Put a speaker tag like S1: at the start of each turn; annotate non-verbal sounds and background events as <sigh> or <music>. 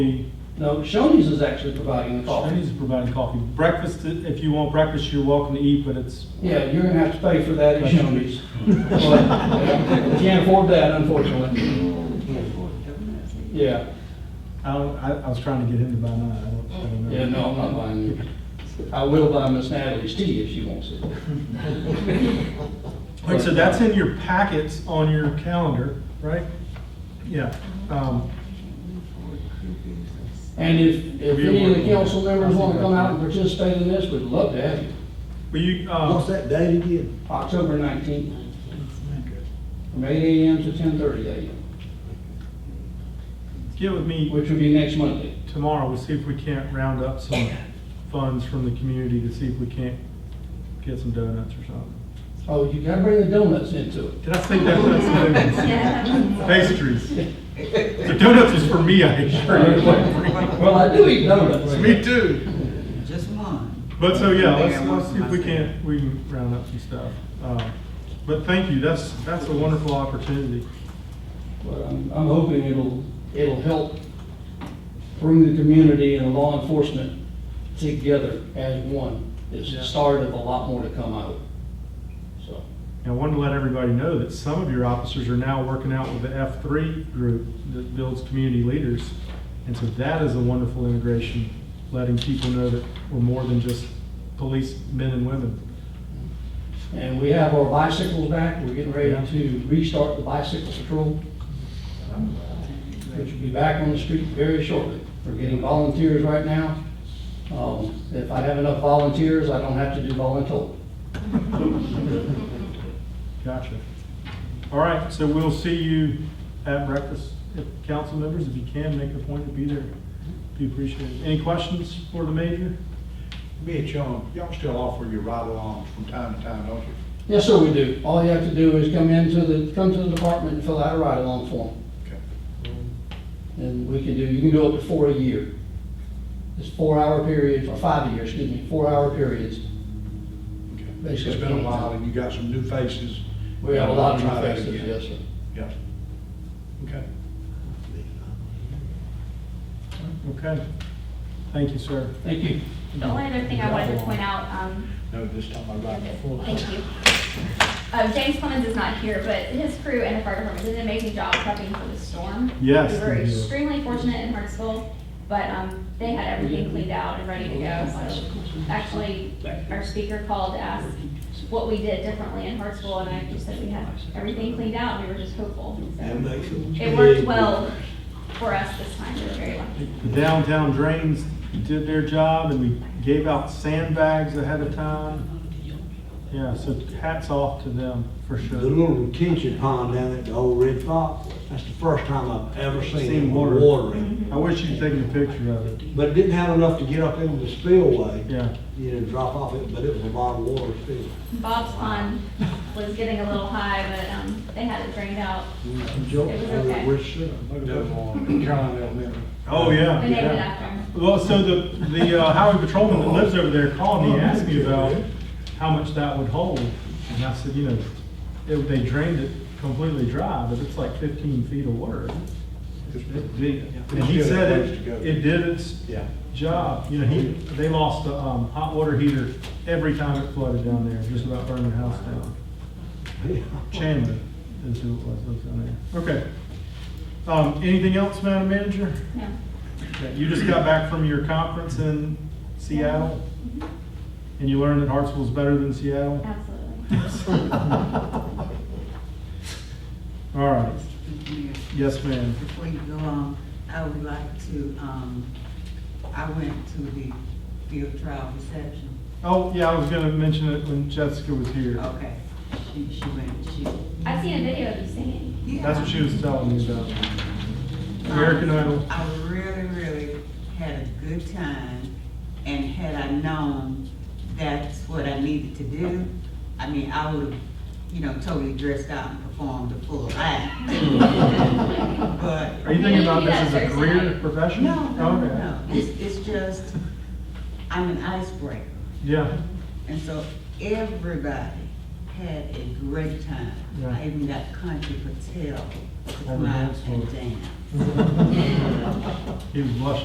S1: No, Shoney's is actually providing the coffee.
S2: Denny's is providing coffee. Breakfast, if you want breakfast, you're welcome to eat, but it's,
S1: Yeah, you're gonna have to pay for that at Shoney's. But, you Can't afford that unfortunately. Yeah,
S2: I don't, I, I was trying to get him to buy mine. I don't- I don't know.
S1: yeah, no, I'm not buying it. I will buy Miss Natalie's tea if she wants it.
S2: All right, so that's in your packets on your calendar, right? Yeah. Um,
S1: And if, if any of the council members wanna come out and participate in this, we'd love to have you.
S2: Will you,
S3: What's
S2: uh,
S3: that date again?
S1: October nineteenth, from eight AM to ten thirty AM,
S2: get with me
S1: which would be next Monday.
S2: tomorrow, we'll see if we can't round up some funds from the community to see if we can't get some donuts or something.
S1: Oh, you gotta bring the donuts into it.
S2: Did I say donuts?
S3: <laughs>
S2: Donuts. Pastries. The donuts was for me, I
S1: <laughs>
S2: assure
S3: <laughs>
S2: you.
S1: Well, I do eat donuts.
S2: Me too.
S4: Just one.
S2: But so, yeah,
S4: Maybe I
S2: let's,
S4: will
S2: let's see if we
S4: myself.
S2: can't, we can round up some stuff. Um, But thank you, that's, that's a wonderful opportunity.
S1: But I'm, I'm hoping it'll, it'll help bring the community and law enforcement together as one. It's the start of a lot more to come out. So,
S2: And I wanted to let everybody know that some of your officers are now working out with the F3 group that builds community leaders. And so that is a wonderful integration, letting people know that we're more than just police men and women.
S1: and we have our bicycles back. We're getting ready to restart the bicycle patrol. Which will be back on the street very shortly. We're getting volunteers right now. Um, if I have enough volunteers, I don't have to do voluntold.
S2: Gotcha. All right, so we'll see you at breakfast. If council members, if you can, make a point to be there. Be appreciated. Any questions for the major?
S3: Mitch, um, y'all still offer your ride-alongs from time to time, don't you?
S1: Yes, sir, we do. All you have to do is come into the, come to the department and fill out a ride-along form.
S3: Okay.
S1: And we can do, you can go up to four a year. It's four-hour periods, or five a year, excuse me, four-hour periods.
S3: Okay. It's been a while, and you got some new faces.
S1: We have a lot of
S3: Try that
S1: traffic,
S3: again.
S1: yes, sir.
S3: Yeah. Okay.
S2: Okay. Thank you, sir.
S1: Thank you.
S5: The only other thing I wanted to point out, um,
S3: No, this time I ride my full.
S5: thank you. Uh, James Clemens is not here, but his crew and the fire department did an amazing job prepping for the storm.
S2: Yes,
S5: We were
S2: they did.
S5: extremely fortunate in Hartsville, but, um, they had everything cleaned out and ready to go, so. Actually, our speaker called to ask what we did differently in Hartsville, and I just said we had everything cleaned out, and we were just hopeful. so. It worked well for us this time, we were very lucky.
S2: The downtown drains did their job and we gave out sandbags ahead of time. Yeah, so hats off to them for
S6: The
S2: sure.
S6: little retention pond down at the old Red Fox, that's the first time I've ever
S2: Seen
S6: seen it
S2: water.
S6: watering.
S2: I wish you'd taken a picture of it.
S6: But it didn't have enough to get up into the spillway.
S2: Yeah.
S6: You know, drop off it, but it was a lot of water still.
S5: Bob's pond was getting a little high, but, um, they had it drained out. It was okay.
S3: John Elementary.
S2: Oh, yeah.
S5: And they
S2: yeah.
S5: went after him.
S2: Well, so the, the uh, highway patrolman that lives over there called me, and asked me about how much that would hold. And I said, you know, if they drained it completely dry, but it's like fifteen feet of water. It did- And he said it, it did its
S3: Yeah.
S2: job, you know, he, they lost the, um, hot water heater every time it flooded down there, just about burned the house down. Chandler is who it was, that was down there. Okay. Um, anything else, Madam Manager?
S5: No.
S2: Okay, You just got back from your conference in Seattle, and you learned that Hartsville's better than
S5: <laughs>
S2: Seattle?
S5: Absolutely.
S6: <laughs>
S2: All right,
S4: Mr. Mayor,
S2: yes, ma'am.
S4: Before you go on, I would like to, um, I went to the field trial reception.
S2: Oh, yeah, I was gonna mention it when Jessica was here.
S4: Okay, she, she went, she.
S5: I've seen a video of you singing.
S2: That's what she was telling me about.
S4: Yeah.
S2: American Idol.
S4: I really, really had a good time, and had I known that's what I needed to do, I mean, I would have, you know, totally dressed out and performed the full act. But
S2: Are you thinking about this as a career, profession? Oh,
S4: No, no, no,
S2: Okay.
S4: no. It's, it's just, I'm an icebreaker.
S2: Yeah,
S4: And so everybody had a great time.
S2: Yeah.
S4: I even got country patel to
S2: All the
S4: come out
S2: dance floor.
S4: and dance.
S5: <laughs>
S2: He was blushing.